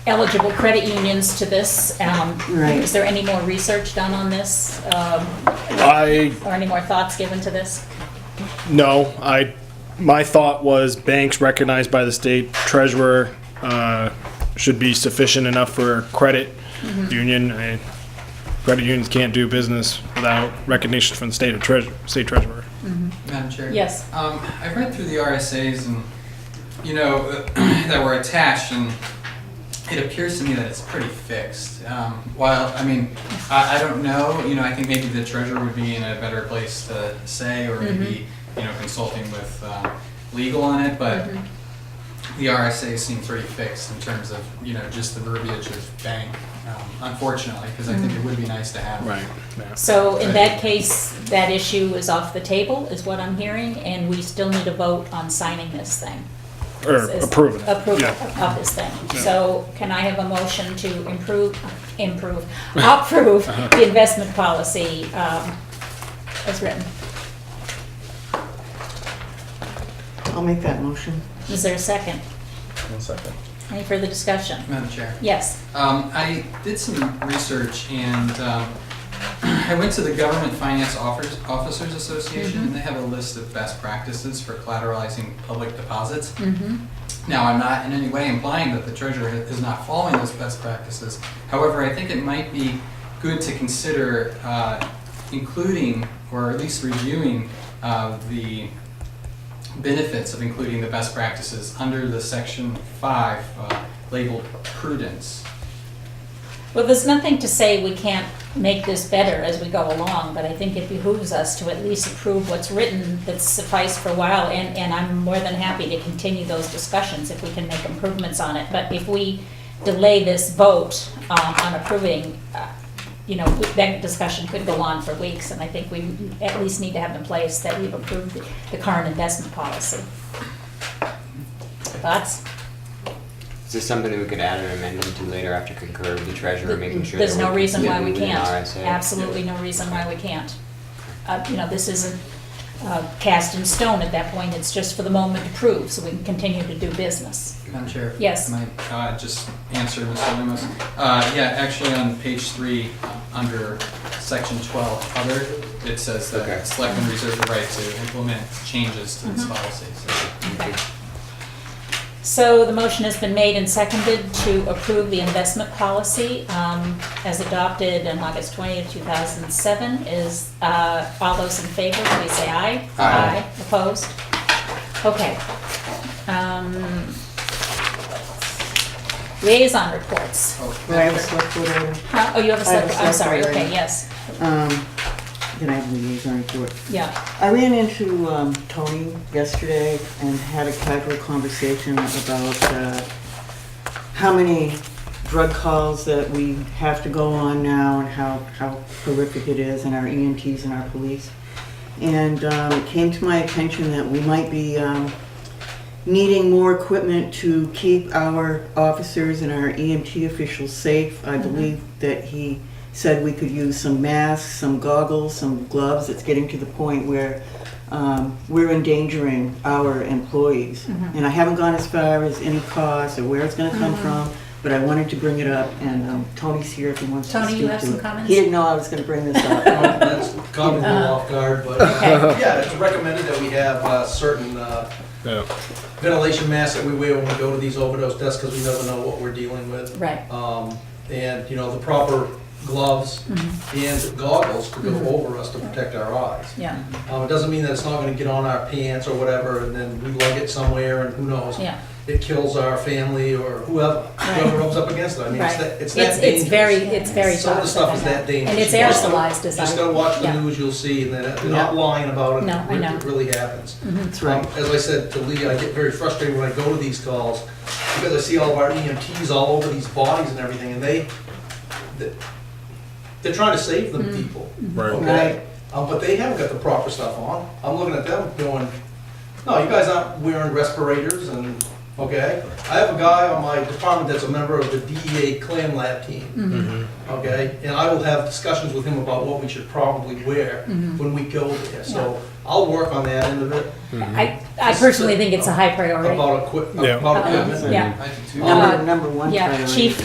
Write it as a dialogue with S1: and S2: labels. S1: eligible credit unions to this. Um,
S2: Right.
S1: Is there any more research done on this, um,
S3: I
S1: or any more thoughts given to this?
S3: no, I my thought was banks recognized by the state treasurer uh, should be sufficient enough for credit
S1: Mm-hmm.
S3: union. I, credit unions can't do business without recognition from the state of treasurer, state treasurer.
S4: Madam Chair?
S1: Yes.
S4: Um, I've read through the RSAs and, you know, that were attached, and it appears to me that it's pretty fixed. Um, While, I mean, I, I don't know, you know, I think maybe the treasurer would be in a better place to say, or maybe, you know, consulting with uh, legal on it, but the RSA seem pretty fixed in terms of, you know, just the verbiage of bank, um, unfortunately, because I think it would be nice to have.
S3: Yeah.
S1: So in that case, that issue is off the table, is what I'm hearing, and we still need a vote on signing this thing.
S3: Or
S1: Is-
S3: approve it.
S1: Approval
S3: Yeah.
S1: of this thing.
S3: Yeah.
S1: So can I have a motion to improve, improve, approve
S3: Uh-huh.
S1: the investment policy um, as written?
S2: I'll make that motion.
S1: Is there a second?
S5: One second.
S1: Any further discussion?
S4: Madam Chair?
S1: Yes.
S4: Um, I did some research and um, I went to the Government Finance Offers- Officers Association and they have a list of best practices for collateralizing public deposits.
S1: Mm-hmm.
S4: Now, I'm not in any way implying that the treasurer is not following those best practices. However, I think it might be good to consider uh, including, or at least reviewing, uh, the benefits of including the best practices under the section five uh, labeled prudence.
S1: Well, there's nothing to say we can't make this better as we go along, but I think it behooves us to at least approve what's written that's sufficed for a while, and, and I'm more than happy to continue those discussions if we can make improvements on it. But if we delay this vote um, on approving, uh, you know, we- that discussion could go on for weeks, and I think we at least need to have in place that we've approved the- the current investment policy. Thoughts?
S6: Is this something that we could add an amendment to later after concur with the treasurer, making sure that
S1: There's no
S6: we're
S1: reason why
S6: consistent
S1: we
S6: within
S1: can't.
S6: RSA?
S1: Absolutely no reason why we can't. Uh, You know, this isn't uh, cast in stone at that point, it's just for the moment to prove, so we can continue to do business.
S4: Madam Chair?
S1: Yes.
S4: May I uh, just answer, Mr. Lemos? Uh, Yeah, actually, on page three, uh, under section 12, other, it says
S6: Okay.
S4: that selectmen reserve the right to implement changes to
S1: Mm-hmm.
S4: this policy. So
S1: So the motion has been made and seconded to approve the investment policy um, as adopted on August 20th, 2007. Is, uh, all those in favor, please say aye.
S4: Aye.
S1: Opposed? Okay. Um, Liaison reports.
S4: oh,
S2: Do I have a select board item?
S1: Huh? Oh, you have a
S2: I have
S1: select,
S2: a
S1: I'm
S2: select
S1: sorry,
S2: board
S1: okay,
S2: item.
S1: yes,
S2: Um, Then I have a liaison report.
S1: yeah.
S2: I ran into um, Tony yesterday and had a casual conversation about uh, how many drug calls that we have to go on now and how, how horrific it is and our EMTs and our police. And um, it came to my attention that we might be um, needing more equipment to keep our officers and our EMT officials safe. I
S1: Mm-hmm.
S2: believe that he said we could use some masks, some goggles, some gloves. It's getting to the point where um, we're endangering our employees.
S1: Mm-hmm.
S2: And I haven't gone as far as any cost or where it's gonna come from, but I wanted to bring it up, and um, Tony's here if he wants to
S1: Tony, you
S2: speak
S1: have
S2: to
S1: some
S2: it.
S1: comments?
S2: He didn't know I was gonna bring this up.
S5: That's caught me a little off guard, but
S1: Okay.
S5: yeah, it's recommended that we have uh, certain uh,
S3: Yeah.
S5: ventilation masks that we wear when we go to these overdose deaths because we never know what we're dealing with.
S1: Right.
S5: Um, And, you know, the proper gloves
S1: Mm-hmm.
S5: and goggles to go over us to protect our eyes.
S1: Yeah,
S5: Um, It doesn't mean that it's not going to get on our pants or whatever, and then we lug it somewhere, and who knows?
S1: yeah,
S5: It kills our family or whoever, whoever rubs up against it. I mean, it's
S1: right.
S5: that, it's
S1: It's,
S5: that
S1: it's
S5: dangerous.
S1: very, it's very
S5: Some of the stuff is
S1: toxic, I know.
S5: that dangerous.
S1: And it's
S5: You just gotta-
S1: aerosolized, as I.
S5: Just gotta watch the
S1: yeah.
S5: news, you'll see, and that, they're not lying about it.
S1: No, I
S5: It
S1: know.
S5: really happens.
S2: That's right.
S5: Um, As I said to Lee, I get very frustrated when I go to these calls, because I see all of our EMTs all over these bodies and everything, and they, they- they're trying to save them
S2: Mm-hmm.
S5: people,
S3: Right.
S5: okay? Um, but they haven't got the proper stuff on. I'm looking at them going, no, you guys aren't wearing respirators and, okay? I have a guy on my department that's a member of the DEA clam lab
S2: Mm-hmm.
S5: team.
S2: Mm-hmm.
S5: Okay, and I will have discussions with him about what we should probably wear when we go there. So I'll work on that end of it,
S1: I, I personally think it's a high priority.
S5: about equip,
S3: Yeah.
S5: about
S1: Uh,
S5: equipment.
S1: Yeah,
S4: I do too.
S1: Um,
S2: Number, number one
S1: yeah,
S2: priority.
S1: chief